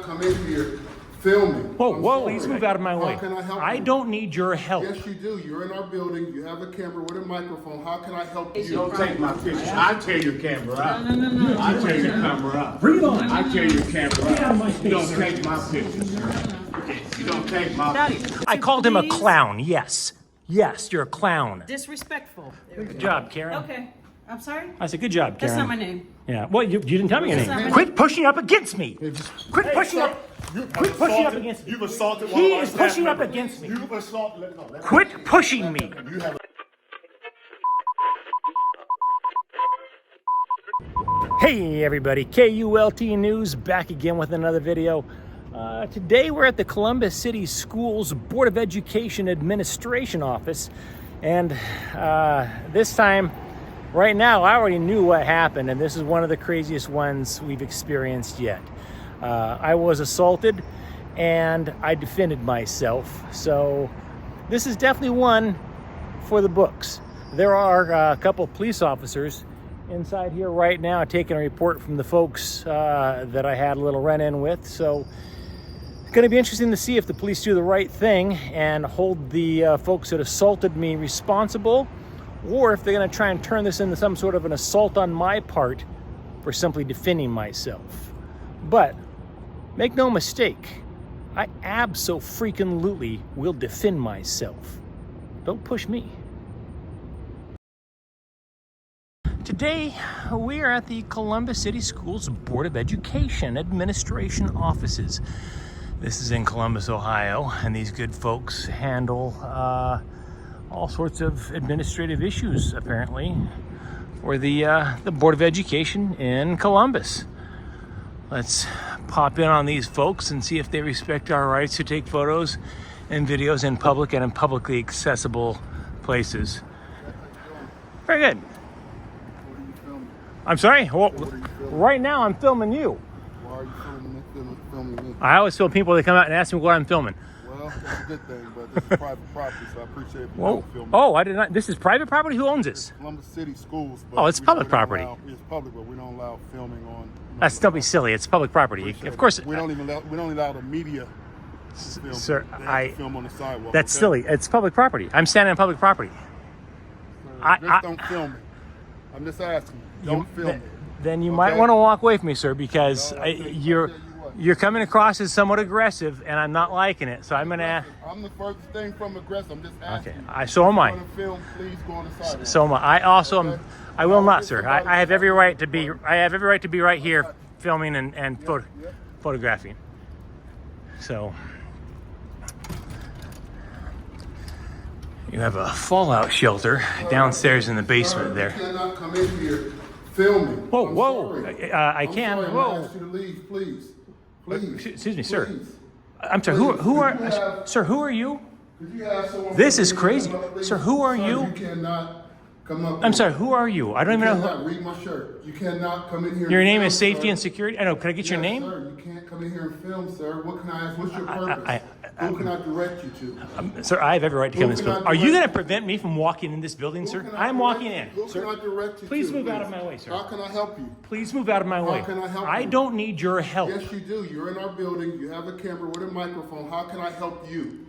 come in here filming. Whoa, I'm whoa, sorry. please move out of my way. How can I help you? don't need your help. Yes, you do. You're in our building. You have a camera with a microphone. How can I help you? Don't take my pictures. I tear your camera out. No, no, no, I tear your camera out. Bring it on. I tear your camera out. of my You don't take my pictures. You don't take my. I called him a Please. clown, yes. Yes, you're a clown. Disrespectful. Good job, Karen. Okay, I'm sorry? I said, good job, Karen. That's not my name. Yeah, well, you, you didn't tell me your That's not name. my Quit pushing up against me. Quit pushing up. Quit pushing up against me. You've assaulted He is pushing up against me. You've assaulted. Quit pushing me. Hey everybody, KULT News back again with another video. Uh, today we're at the Columbus City Schools Board of Education Administration Office, and uh, this time, right now, I already knew what happened, and this is one of the craziest ones we've experienced yet. Uh, I was assaulted, and I defended myself, so this is definitely one for the books. There are uh, a couple of police officers inside here right now taking a report from the folks uh, that I had a little run in with. So it's going to be interesting to see if the police do the right thing and hold the uh, folks that assaulted me responsible or if they're going to try and turn this into some sort of an assault on my part for simply defending myself. But make no mistake, I abso-freaking-lutely will defend myself. Don't push me. Today, we are at the Columbus City Schools Board of Education Administration offices. This is in Columbus, Ohio, and these good folks handle uh, all sorts of administrative issues, apparently, for the, uh, the Board of Education in Columbus. Let's pop in on these folks and see if they respect our rights to take photos and videos in public and in publicly accessible places. Very good. What are you filming? I'm sorry. Well, you filming? right now I'm filming you. Why are you filming me? Filming, filming me? I always film people that come out and ask me what I'm filming. Well, that's a good thing, but this is private property, so I appreciate if you Whoa. don't film me. Oh, I did not. This is private property. Who owns this? Columbus City Schools. But Oh, it's we- we public don't property. allow- It's public, but we don't allow filming on. you know, That's don't be silly. It's public property. appreciate Of it. course, We don't even allow, we don't allow the media to film. sir, They have to I- Film on the sidewalk. that's okay? silly. It's public property. I'm standing on public property. I- Just I- don't film it. I'm just asking. You- Don't film th- it. Then you might Okay? want to walk away from me, sir, because No, I, I'll tell you- I'll you're tell you what. you're coming across as somewhat aggressive, and I'm not liking it. So I'm gonna. I'm the first thing from aggressive. I'm just asking. Okay. I so am I. If you wanna film, please go on the sidewalk. So am I. I also am. Okay. I will Now, not, if sir. somebody- I, I have every right to be. I have every right to be right here, filming and and photo, yep. photographing. So you have a fallout shelter downstairs in the basement You there. cannot come in here filming. Whoa, I'm whoa. sorry. Uh, I I'm can. sorry, I'm Whoa. Uh, gonna ask you to leave, please. Please. excuse me, sir. Please. I'm sorry. Who Please, who could you are have- sir? Who are you? Could you have someone This from is the crazy. media come up, please? Sir, who are Sir, you? You cannot come up. I'm sorry. Who are you? I don't You even know. cannot read my shirt. You cannot come in here. Who, your and name is film, Safety sir. and Security. I know. Can I get your Yes, name? Sir, you can't come in here and film, sir. What can I ask? What's your purpose? I- Who can I direct you to? Um, Sir, I have every right to come in this Who can I building. Are you going direct- to prevent me from walking in this building, Who sir? can I I'm direct- walking in. Who sir. can I direct you Please to, move out of my way, sir. How can I help you? Please move out of my way. can I help I you? don't need your help. Yes, you do. You're in our building. You have a camera with a microphone. How can I help you?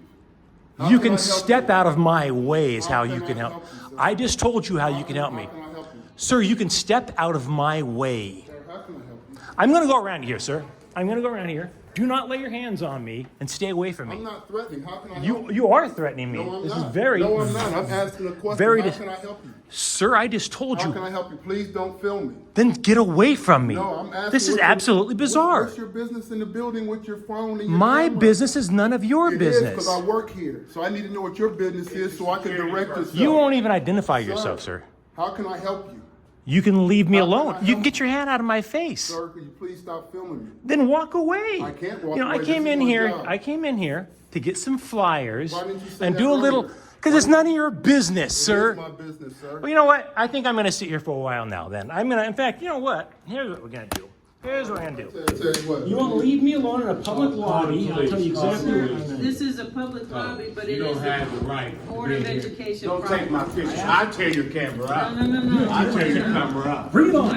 How you I can help step you? out of my way is How how can you I can help. help you, sir? I just told you how you can help How me. can I help you? Sir, you can step out of my way. Sir, How can I help you? I'm going to go around here, sir. I'm going to go around here. Do not lay your hands on me and stay away from I'm me. not threatening. How can I help You you are threatening me. No, I'm this not. is very No, I'm not. I'm asking a question. very How dis- can I help you? Sir, I just told How you. can I help you? Please don't film me. Then get away from me. No, I'm asking. this is what your- absolutely what- bizarre. What's your business in the building with your phone and your My camera? business is none of your It business. is because I work here, so I need to know what your business is so I can direct yourself. You won't even identify yourself, sir. How can I help you, You can leave me How can I alone. You help can get your hand out of my face. sir? Could you please stop filming me? Then walk away. I can't walk You know, I away. came This is in my here. job. I came in here to get some flyers Why didn't you say and that do a little. earlier? Because it's none of your business, sir. It's my business, sir. Well, you know what? I think I'm going to sit here for a while now. Then I'm going to. In fact, you know what? Here's what we're going to do. Here's what I'm going to do. I'll tell you what. You want to leave me alone in a public lobby? I'll tell you exactly where I'm going. This is a public lobby, but it You don't is the have the right. to Board be of here. Education Don't property. take my pictures. I tear your camera No, out. no, no, no. I tear your camera out. Bring it on.